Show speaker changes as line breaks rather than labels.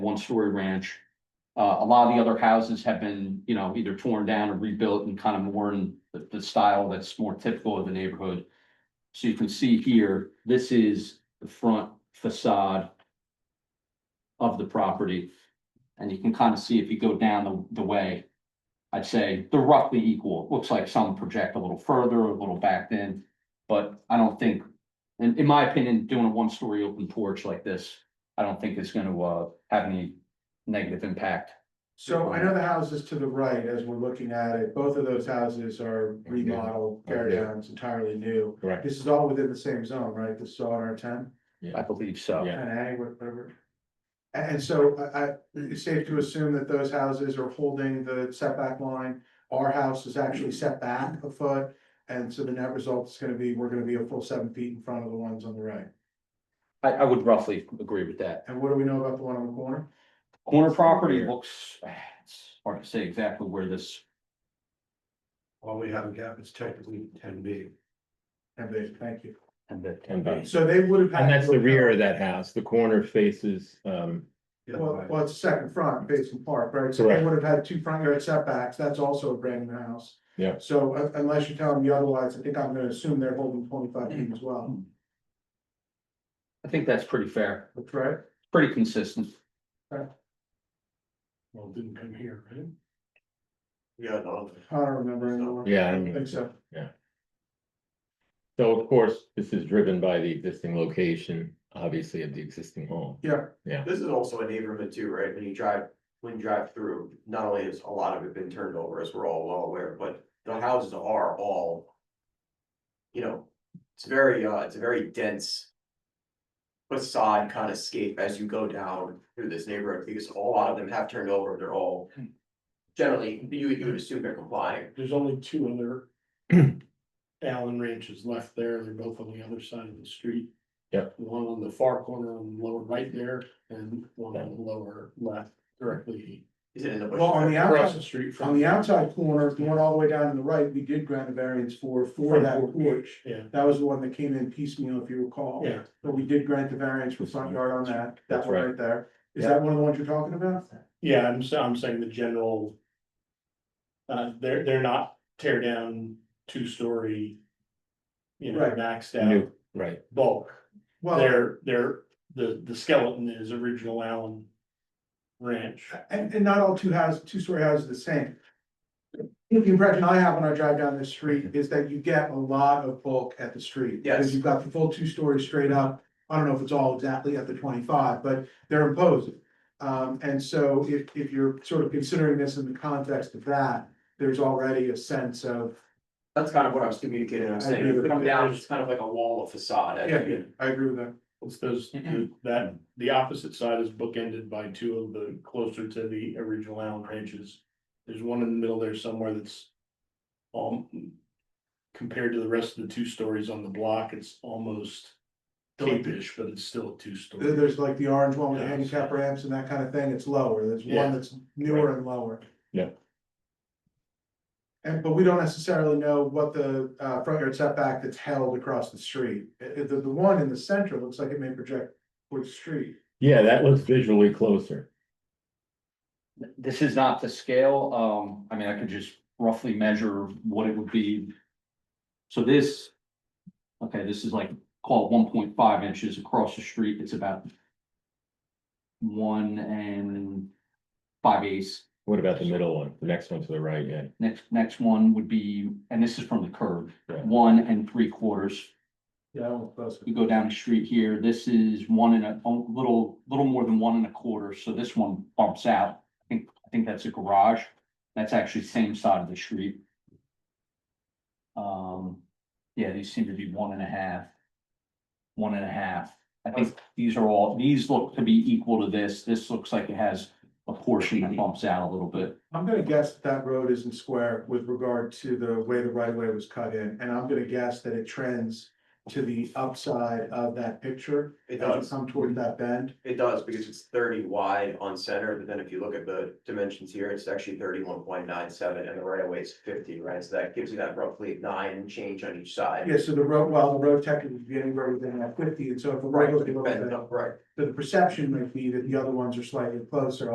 one-story ranch. Uh, a lot of the other houses have been, you know, either torn down or rebuilt and kind of more in the, the style that's more typical of the neighborhood. So you can see here, this is the front facade of the property. And you can kind of see if you go down the, the way, I'd say they're roughly equal. It Looks like some project a little further, a little back in. But I don't think, in, in my opinion, doing a one-story open porch like this, I don't think it's gonna, uh, have any negative impact.
So I know the houses to the right, as we're looking at it, both of those houses are remodeled,
Oh,
tear downs, entirely new.
Correct.
This is all within the same zone, right? This is all in R ten,
I believe so.
Yeah.
ten A, whatever. And, and so I, I, it's safe to assume that those houses are holding the setback line. Our house is actually set back a foot, and so the net result is gonna be, we're gonna be a full seven feet in front of the ones on the right.
I, I would roughly agree with that.
And what do we know about the one on the corner?
Corner property looks, ah, it's hard to say exactly where this,
All we have a gap is technically ten B.
And they, thank you.
and the,
And that's-
So they would have. had-
uh, and that's the rear of that house, the corner faces, um,
Well, well, it's second front facing park, right? So they
Correct.
would have had two front yard setbacks, that's also a brand new house.
Yeah.
So uh, unless you tell me otherwise, I think I'm gonna assume they're holding twenty-five feet as well,
I think that's pretty fair,
Hmm.
that's right?
pretty consistent.
Well, it didn't come here, right? Yeah, no.
I don't remember anymore.
yeah. I
I
mean,
think so.
So of course, this is driven by the existing location, obviously of the existing home.
Yeah,
This is also a neighborhood too, right? When you drive, when you drive through, not only has a lot of it been turned over, as we're all well aware, but the houses are all. You know, it's very, uh, it's a very dense. Facade kind of scape as you go down through this neighborhood, because a lot of them have turned over, they're all.
Hmm.
Generally, you you would assume they're complying.
There's only two other. Allen ranches left there, they're both on the other side of the street.
Yep.
One on the far corner on the lower right there, and one on the lower left directly
Is it in the bush?
well, on the
across the
outside,
street
on
from.
the outside corner, if you went all the way down to the right, we did grant a variance for, for
Front
that
porch.
porch.
Yeah.
That was the one that came in piecemeal, if you recall.
Yeah.
But we did grant the variance for front yard on that, that
That's
one
right.
right there. Is that one of the ones you're talking about?
Yeah, I'm sa- I'm saying the general. Uh, they're, they're not tear down, two-story. You know,
Right.
maxed out
New, right,
bulk,
Well.
they're, they're, the, the skeleton is original Allen. Ranch,
And, and not all two houses, two-story houses are the same. The impression I have when I drive down the street is that you get a lot of bulk at the street.
Yes.
Because you've got the full two stories straight up, I don't know if it's all exactly at the twenty-five, but they're imposing. Um, and so if, if you're sort of considering this in the context of that, there's already a sense of,
That's kind of what I was communicating, I was saying, if you come down, it's kind of like a wall of facade. as
yeah,
you-
I agree with that.
it's those, the- that, the opposite side is bookended by two of the closer to the original Allen ranches. There's one in the middle there somewhere that's. Um, compared to the rest of the two stories on the block, it's almost. Cape-ish, but it's still a
There-
two-story.
There's like the orange one with the handicap ramps and that kind of thing, it's lower, there's
Yeah.
one that's newer and lower.
Yeah.
And, but we don't necessarily know what the, uh, front yard setback that's held across the street, I- I- the, the one in the center looks like it may project towards the street.
yeah, that looks visually closer.
This is not to scale, um, I mean, I could just roughly measure what it would be. So this, okay, this is like, call it one point five inches across the street, it's about one and five eighths.
What about the middle one, the next one to the right, yeah,
Next, next one would be, and this is from the curb,
Right.
one and three quarters.
Yeah, I won't close it.
You go down the street here, this is one and a, a little, little more than one and a quarter, so this one bumps out. I think, I think that's a garage, that's actually same side of the street. Um, yeah, these seem to be one and a half. One and a half, I think these are all, these look to be equal to this, this looks like it has a portion that bumps out a little bit.
I'm gonna guess that that road isn't square with regard to the way the right of way was cut in, and I'm gonna guess that it trends to the upside of that picture.
It
It doesn't
does,
come toward that bend.
it does, because it's thirty wide on center, but then if you look at the dimensions here, it's actually thirty-one point nine seven, and the right of way is fifty, right? So that gives you that roughly nine and change on each side.
Yeah, so the road, well, the road tech is getting where within that fifty, and so if the right was to go
Bend up, right.
So the perception might be that the other ones are slightly closer,